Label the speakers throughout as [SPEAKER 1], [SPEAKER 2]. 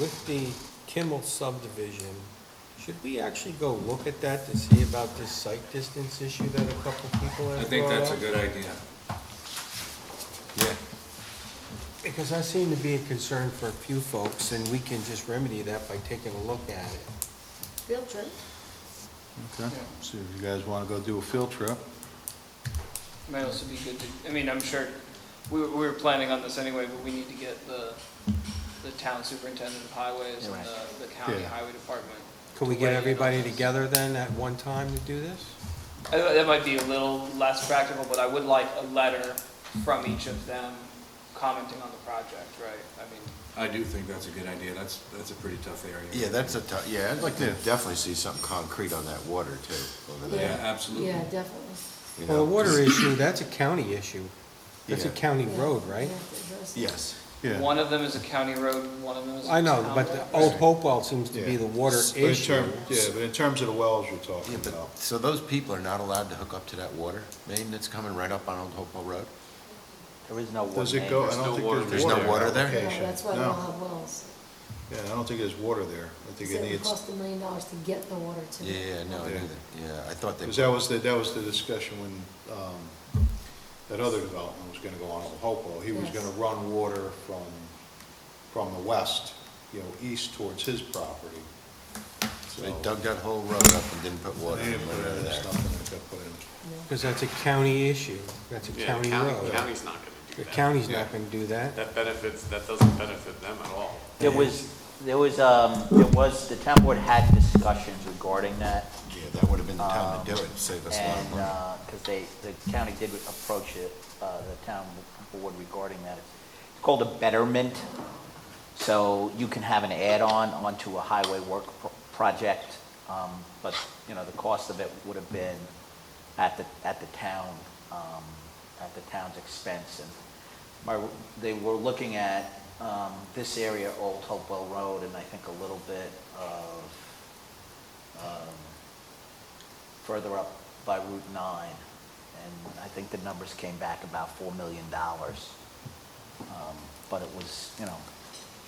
[SPEAKER 1] With the Kimmel subdivision, should we actually go look at that to see about this site distance issue that a couple people
[SPEAKER 2] I
[SPEAKER 1] have
[SPEAKER 2] think
[SPEAKER 1] brought
[SPEAKER 2] that's a
[SPEAKER 1] up?
[SPEAKER 2] good idea. Yeah.
[SPEAKER 1] Because that seemed to be a concern for a few folks, and we can just remedy that by taking a look at it.
[SPEAKER 3] Field trip.
[SPEAKER 4] Okay, so if you guys want to go do a field trip,
[SPEAKER 5] Might also be good to, I mean, I'm sure, we, were- we were planning on this anyway, but we need to get the, the town superintendent of highways and the, the county
[SPEAKER 4] Yeah.
[SPEAKER 5] highway department.
[SPEAKER 1] Could we get
[SPEAKER 5] Right.
[SPEAKER 1] everybody together then at one time to do this?
[SPEAKER 5] I thought That might be a little less practical, but I would like a letter from each of them commenting on the project, right? I mean,
[SPEAKER 2] I do think that's a good idea. That's, that's a pretty tough area.
[SPEAKER 6] Yeah, that's a tough, yeah, I'd like to
[SPEAKER 4] Yeah.
[SPEAKER 6] definitely see something concrete on that water too, over
[SPEAKER 2] Yeah,
[SPEAKER 6] there.
[SPEAKER 2] absolutely.
[SPEAKER 3] Yeah, definitely.
[SPEAKER 6] you
[SPEAKER 1] Well, the
[SPEAKER 6] know,
[SPEAKER 1] water
[SPEAKER 6] just-
[SPEAKER 1] issue, that's a county issue. That's a
[SPEAKER 6] Yeah.
[SPEAKER 1] county
[SPEAKER 3] Yeah,
[SPEAKER 1] road, right?
[SPEAKER 3] we have to address it.
[SPEAKER 6] Yes,
[SPEAKER 4] yeah.
[SPEAKER 5] one of them is a county road, one of them is a
[SPEAKER 1] I
[SPEAKER 5] town road.
[SPEAKER 1] know, but the Old Hopewell seems to be
[SPEAKER 4] Yeah.
[SPEAKER 1] the water
[SPEAKER 4] But in
[SPEAKER 1] issue.
[SPEAKER 4] term- Yeah, but in terms of the wells you're talking
[SPEAKER 6] yeah,
[SPEAKER 4] about,
[SPEAKER 6] but, so those people are not allowed to hook up to that water main that's coming right up on Old Hopewell Road?
[SPEAKER 7] There is no one
[SPEAKER 4] does it
[SPEAKER 7] name.
[SPEAKER 4] go, I don't think
[SPEAKER 6] There's
[SPEAKER 4] there's
[SPEAKER 6] no
[SPEAKER 4] water.
[SPEAKER 6] water there?
[SPEAKER 3] Yeah,
[SPEAKER 4] application.
[SPEAKER 3] That's why they
[SPEAKER 4] No.
[SPEAKER 3] don't have wells.
[SPEAKER 4] Yeah, I don't think there's water there. I think
[SPEAKER 3] So
[SPEAKER 4] it
[SPEAKER 3] it
[SPEAKER 4] needs,
[SPEAKER 3] cost a million dollars to get the water to.
[SPEAKER 6] Yeah, yeah, no, I knew
[SPEAKER 4] Yeah.
[SPEAKER 6] that, yeah, I thought they,
[SPEAKER 4] because that was the, that was the discussion when, um, that other development was going to go on in Hopewell. He was
[SPEAKER 3] Yes.
[SPEAKER 4] going to run water from, from the west, you know, east towards his property. So
[SPEAKER 6] they dug that whole road up and didn't put water
[SPEAKER 4] They
[SPEAKER 6] in
[SPEAKER 4] didn't put
[SPEAKER 6] over
[SPEAKER 4] in
[SPEAKER 6] there.
[SPEAKER 4] stuff and it got put in.
[SPEAKER 1] Because that's a county issue. That's a
[SPEAKER 8] Yeah,
[SPEAKER 1] county
[SPEAKER 8] county-
[SPEAKER 1] road.
[SPEAKER 8] County's not gonna do
[SPEAKER 1] The
[SPEAKER 8] that.
[SPEAKER 1] county's not gonna do that.
[SPEAKER 8] That benefits, that doesn't benefit them at all.
[SPEAKER 7] There was, there was, um, there was, the town board had discussions regarding that.
[SPEAKER 6] Yeah, that would have been the time to do it, save us a lot of
[SPEAKER 7] Um, And,
[SPEAKER 6] money.
[SPEAKER 7] uh 'cause because they, the county did approach it, uh, the town board regarding that. It's called a betterment. So you can have an add-on onto a highway work pro- project, um, but, you know, the cost of it would have been at the, at the town, um, at the town's expense. And my, they were looking at, um, this area, Old Hopewell Road, and I think a little bit of, um, further up by Route 9, and I think the numbers came back about $4 million. Um, But it was, you know,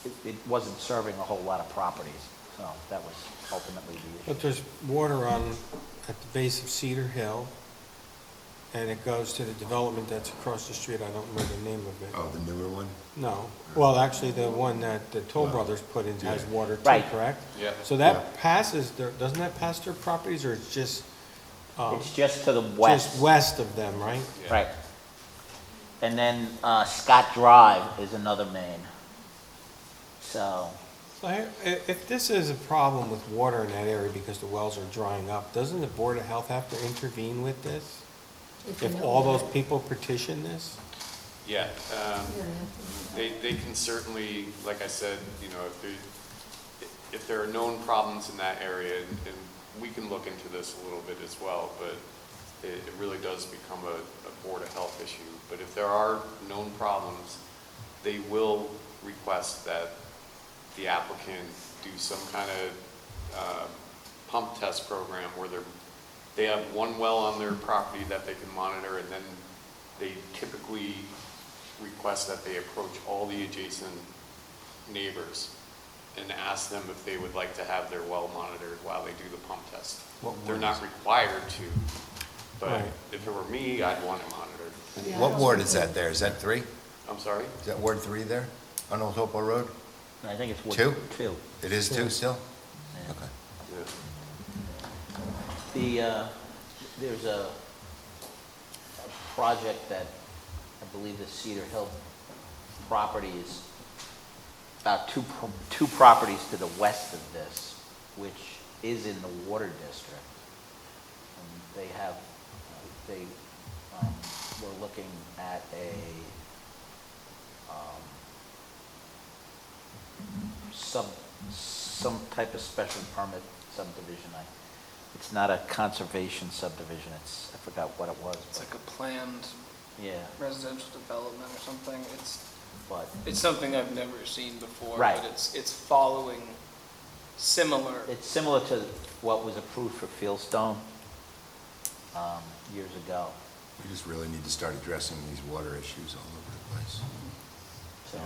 [SPEAKER 7] it- it wasn't serving a whole lot of properties, so that was ultimately the
[SPEAKER 1] But
[SPEAKER 7] issue.
[SPEAKER 1] there's water on, at the base of Cedar Hill, and it goes to the development that's across the street, I don't remember the name of
[SPEAKER 6] Oh,
[SPEAKER 1] it.
[SPEAKER 6] the newer one?
[SPEAKER 1] No, well, actually, the one that the Toll Brothers put in has water too,
[SPEAKER 7] Right.
[SPEAKER 1] correct?
[SPEAKER 8] Yeah.
[SPEAKER 1] So that passes their, doesn't that pass their properties, or it's just, um,
[SPEAKER 7] It's just to the
[SPEAKER 1] just
[SPEAKER 7] west.
[SPEAKER 1] west of them, right?
[SPEAKER 8] Yeah.
[SPEAKER 7] Right. And then uh, Scott Drive is another main. So,
[SPEAKER 1] So I- i- if this is a problem with water in that area because the wells are drying up, doesn't the Board of Health have to intervene with this?
[SPEAKER 3] you
[SPEAKER 1] If
[SPEAKER 3] know
[SPEAKER 1] all
[SPEAKER 3] that.
[SPEAKER 1] those people petition this?
[SPEAKER 8] Yeah, um,
[SPEAKER 3] You're gonna have to-
[SPEAKER 8] they, they can certainly, like I said, you know, if there, if there are known problems in that area, and and we can look into this a little bit as well, but it, it really does become a, a Board of Health issue. But if there are known problems, they will request that the applicant do some kind of uh, pump test program where they're, they have one well on their property that they can monitor, and then they typically request that they approach all the adjacent neighbors and ask them if they would like to have their well monitored while they do the pump test. They're not required to, but
[SPEAKER 1] Right.
[SPEAKER 8] if it were me, I'd want it monitored.
[SPEAKER 3] Yeah, I
[SPEAKER 6] What
[SPEAKER 3] don't
[SPEAKER 6] ward
[SPEAKER 3] think
[SPEAKER 6] is
[SPEAKER 3] they-
[SPEAKER 6] that there? Is that three?
[SPEAKER 8] I'm sorry?
[SPEAKER 6] Is that Ward Three there, on Old Hopewell Road?
[SPEAKER 7] I think it's. what-
[SPEAKER 6] Two?
[SPEAKER 7] Two.
[SPEAKER 6] It is two still?
[SPEAKER 7] yeah.
[SPEAKER 6] Okay.
[SPEAKER 8] Yeah.
[SPEAKER 7] The, uh, there's a, a project that, I believe the Cedar Hill property is about two, pro- two properties to the west of this, which is in the water district. And They have, uh, they, um, were looking at a, um, some, some type of special permit subdivision. I- It's not a conservation subdivision, it's, I forgot what it was,
[SPEAKER 5] It's
[SPEAKER 7] but,
[SPEAKER 5] like a planned
[SPEAKER 7] yeah,
[SPEAKER 5] residential development or something. It's,
[SPEAKER 7] but,
[SPEAKER 5] it's something I've never seen before.
[SPEAKER 7] Right.
[SPEAKER 5] But it's, it's following similar.
[SPEAKER 7] it's similar to what was approved for Fieldstone, um, years ago,
[SPEAKER 6] We just really need to start addressing these water issues all over the place.
[SPEAKER 7] so.